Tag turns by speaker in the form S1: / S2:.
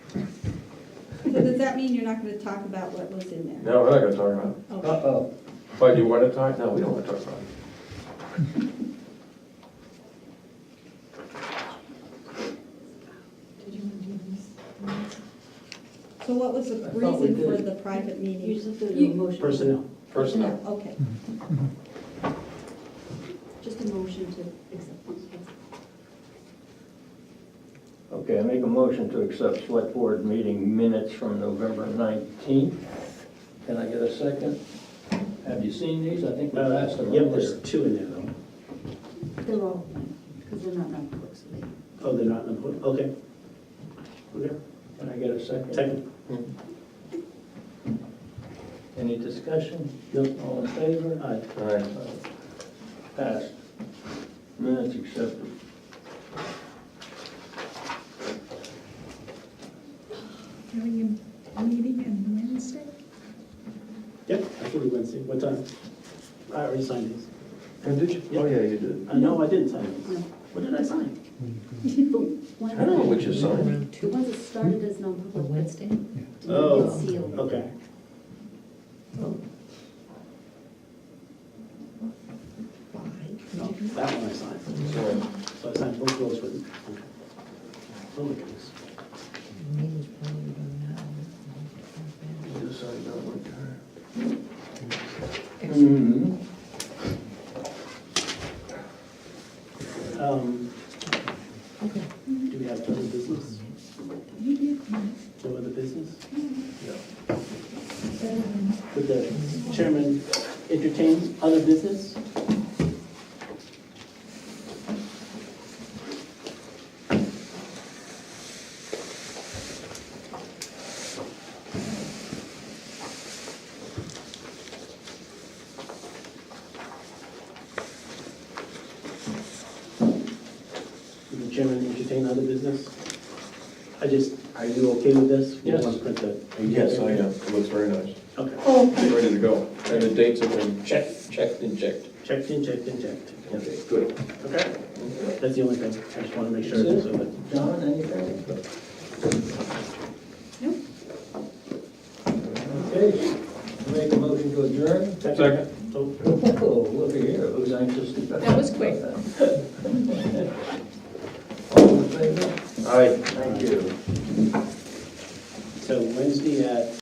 S1: So does that mean you're not gonna talk about what was in there?
S2: No, we're not gonna talk about it.
S1: Okay.
S3: Uh-oh.
S2: But you wanna talk, no, we don't wanna talk about it.
S1: So what was the
S3: I thought we
S1: reason for
S3: did.
S1: the private
S4: You
S1: meeting?
S4: just have to do
S1: You-
S4: a motion,
S3: Personnel.
S2: Personnel.
S1: Okay,
S4: just a motion to accept.
S5: Okay, I make a motion to accept select board meeting minutes from November 19th. Can I get a second? Have you seen these? I think we asked them
S3: Uh, Yep, there's
S5: earlier.
S3: two in there though.
S4: They're all, because they're not non-public, so they.
S3: Oh, they're not in the, book. okay. Okay,
S5: Can I get a second? Hmm.
S3: second.
S5: Any discussion?
S3: No.
S5: All in favor?
S3: Aye.
S2: All right.
S5: Passed. Minutes accepted.
S6: Having a meeting on Wednesday?
S3: Yep, actually Wednesday, what time? I already signed these.
S2: And did you, oh, yeah, you did.
S3: Uh, no, I didn't sign
S4: No.
S3: these. What did I sign?
S2: I don't know what you signed.
S4: The ones that started as non-public. Wednesday?
S3: Oh,
S4: It's sealed.
S3: Okay. Oh. No, that one I signed.
S2: So,
S3: So I signed both those with, okay. Oh my goodness.
S2: you signed that one time.
S5: Mhm.
S3: Um, Do we have other business?
S6: You did,
S3: No other business?
S2: No.
S3: Would the chairman entertain other business? Would the chairman entertain other business? I just, are you okay with this? We
S2: Yes.
S3: want to print the-
S2: Yes, I am, it looks very nice.
S3: Okay.
S2: Ready to go. And the dates have been checked, checked, and checked.
S3: Checked in, checked in, checked.
S2: Okay, good.
S3: Okay. That's the only thing. I just want to make sure.
S5: That's
S3: so that-
S5: John, anything?
S1: Nope.
S5: Okay, make a motion to adjourn?
S2: Second.
S3: Oh,
S5: Oh, look at here, who's anxious to...
S6: That was quick.
S5: All in favor?
S2: All right.
S5: Thank you.
S3: So Wednesday at